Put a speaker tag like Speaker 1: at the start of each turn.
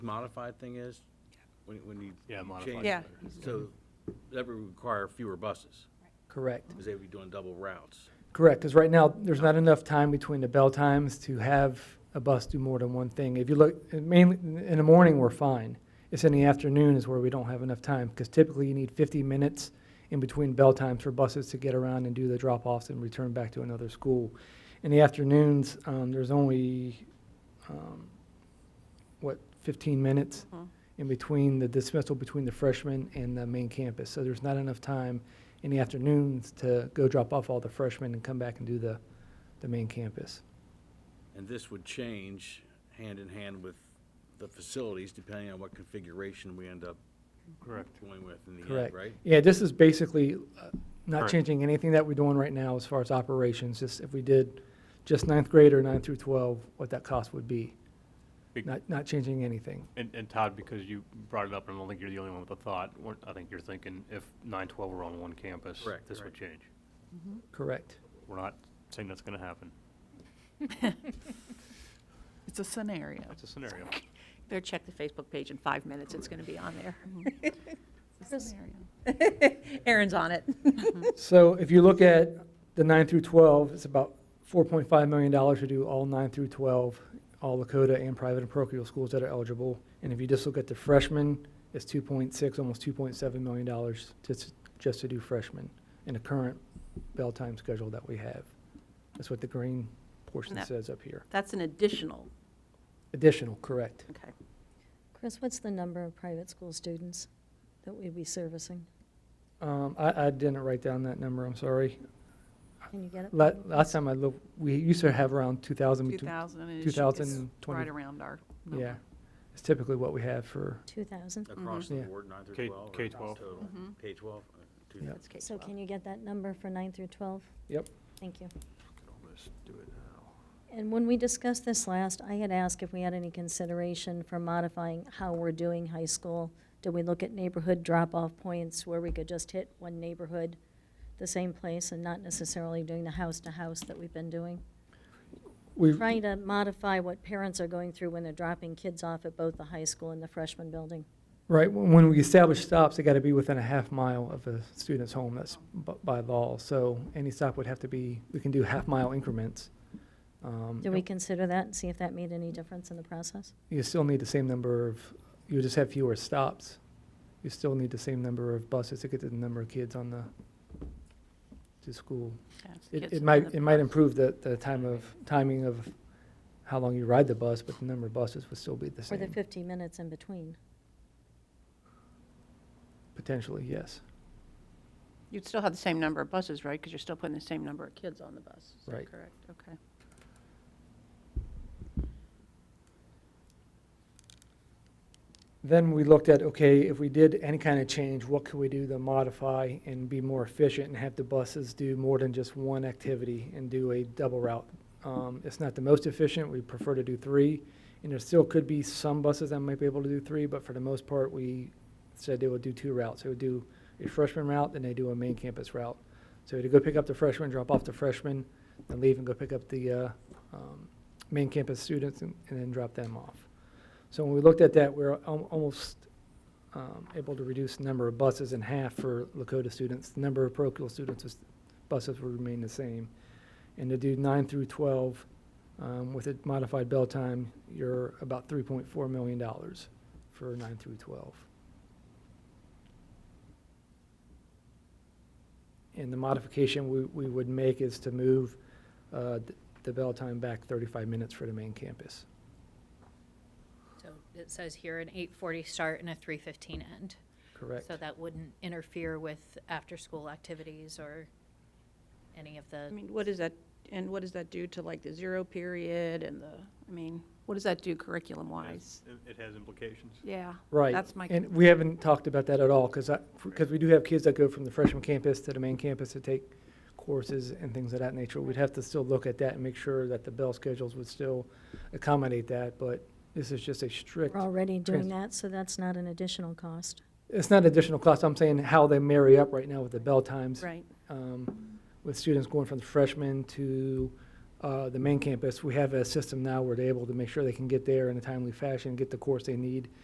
Speaker 1: modified thing is? When, when you.
Speaker 2: Yeah,
Speaker 1: you
Speaker 2: modified
Speaker 1: change-
Speaker 3: Yeah. is
Speaker 1: So that would require fewer buses,
Speaker 4: Correct.
Speaker 1: because they would be doing double routes.
Speaker 4: Correct, because right now, there's not enough time between the bell times to have a bus do more than one thing. If you look, mainly, in the morning, we're fine. It's in the afternoon is where we don't have enough time, because typically you need fifty minutes in between bell times for buses to get around and do the drop-offs and return back to another school. In the afternoons, um, there's only, um, what, fifteen minutes in between the dismissal between the freshmen and the main campus. So there's not enough time in the afternoons to go drop off all the freshmen and come back and do the, the main campus.
Speaker 1: And this would change hand in hand with the facilities, depending on what configuration we end up
Speaker 2: Correct.
Speaker 1: going with in the end,
Speaker 4: Correct.
Speaker 1: right?
Speaker 4: Yeah, this is basically uh, not
Speaker 2: Correct.
Speaker 4: changing anything that we're doing right now as far as operations, just if we did just ninth grade or nine through twelve, what that cost would be.
Speaker 2: Big-
Speaker 4: Not, not changing anything.
Speaker 2: And, and Todd, because you brought it up, and I don't think you're the only one with a thought, we're- I think you're thinking if nine twelve were on one campus,
Speaker 1: Correct,
Speaker 2: this would change.
Speaker 4: Correct.
Speaker 2: We're not saying that's gonna happen.
Speaker 5: It's a scenario.
Speaker 2: That's a scenario.
Speaker 6: Better check the Facebook page in five minutes, it's going to be on there.
Speaker 5: Mm-hmm. It's a scenario.
Speaker 6: Erin's on it.
Speaker 4: So if you look at the nine through twelve, it's about four point five million dollars to do all nine through twelve, all Lakota and private and parochial schools that are eligible. And if you just look at the freshmen, it's two point six, almost two point seven million dollars just, just to do freshmen in the current bell time schedule that we have. That's what the green portion
Speaker 6: Yep.
Speaker 4: says up here.
Speaker 6: That's an additional,
Speaker 4: Additional, correct.
Speaker 6: okay.
Speaker 7: Chris, what's the number of private school students that we'd be servicing?
Speaker 4: Um, I, I didn't write down that number, I'm sorry.
Speaker 7: Can you get it?
Speaker 4: La- last time I looked, we used to have around two thousand.
Speaker 5: 2000 is- is
Speaker 4: 2020.
Speaker 5: right around our number.
Speaker 4: Yeah, it's typically what we have for.
Speaker 7: Two thousand?
Speaker 1: Across the
Speaker 4: Yeah.
Speaker 1: board, nine through
Speaker 2: K-
Speaker 1: twelve? uh, or
Speaker 2: K-12.
Speaker 1: total? K-12?
Speaker 4: Yeah.
Speaker 6: That's K
Speaker 7: So
Speaker 6: 12.
Speaker 7: can you get that number for nine through twelve?
Speaker 4: Yep.
Speaker 7: Thank you.
Speaker 2: Let's do it now.
Speaker 7: And when we discussed this last, I had asked if we had any consideration for modifying how we're doing high school. Did we look at neighborhood drop-off points where we could just hit one neighborhood, the same place, and not necessarily doing the house-to-house that we've been doing?
Speaker 4: We've,
Speaker 7: Trying to modify what parents are going through when they're dropping kids off at both the high school and the freshman building.
Speaker 4: Right, when when we establish stops, they got to be within a half mile of a student's home, that's b- by law. So any stop would have to be, we can do half-mile increments. Um,
Speaker 7: Do we consider that and see if that made any difference in the process?
Speaker 4: You still need the same number of, you just have fewer stops. You still need the same number of buses to get to the number of kids on the, to school.
Speaker 5: Yeah, it's the
Speaker 4: It,
Speaker 5: kids
Speaker 4: it
Speaker 5: on
Speaker 4: might,
Speaker 5: the
Speaker 4: it might
Speaker 5: bus.
Speaker 4: improve the, the time of, timing of how long you ride the bus, but the number of buses would still be the
Speaker 7: Or the
Speaker 4: same,
Speaker 7: fifteen minutes in between?
Speaker 4: potentially, yes.
Speaker 6: You'd still have the same number of buses, right? Because you're still putting the same number of kids on the bus. Is that
Speaker 4: Right.
Speaker 6: Correct, okay.
Speaker 4: Then we looked at, okay, if we did any kind of change, what could we do to modify and be more efficient and have the buses do more than just one activity and do a double route? Um, it's not the most efficient, we prefer to do three, and there still could be some buses that might be able to do three, but for the most part, we said they would do two routes. They would do a freshman route, then they do a main campus route. So to go pick up the freshmen, drop off the freshmen, then leave and go pick up the, uh, um, main campus students and, and then drop them off. So when we looked at that, we we're al- almost um, able to reduce the number of buses in half for Lakota students. The number of parochial students, is- buses will remain the same. And to do nine through 12 um, with a modified bell time, you're about $3.4 million for nine through 12. And the modification we, we would make is to move uh, th- the bell time back 35 minutes for the main campus.
Speaker 8: So it says here an eight forty start and a three fifteen end.
Speaker 4: Correct?
Speaker 8: So that wouldn't interfere with after-school activities or any of
Speaker 6: I
Speaker 8: the,
Speaker 6: mean, what is that, and what does that do to like the zero period and the, I mean, what does that do curriculum-wise?
Speaker 2: It has implications.
Speaker 6: Yeah.
Speaker 4: Right.
Speaker 6: That's my,
Speaker 4: And we haven't talked about that at all, because I, because we do have kids that go from the freshman campus to the main campus to take courses and things of that nature. We'd have to still look at that and make sure that the bell schedules would still accommodate that, but this is just a strict,
Speaker 7: We're already
Speaker 4: Trans-
Speaker 7: doing that, so that's not an additional cost.
Speaker 4: it's not additional cost, I'm saying how they marry up right now with the bell times.
Speaker 6: right,
Speaker 4: um, with students going from freshman to uh, the main campus, we have a system now where they're able to make sure they can get there in a timely fashion, get the course they need,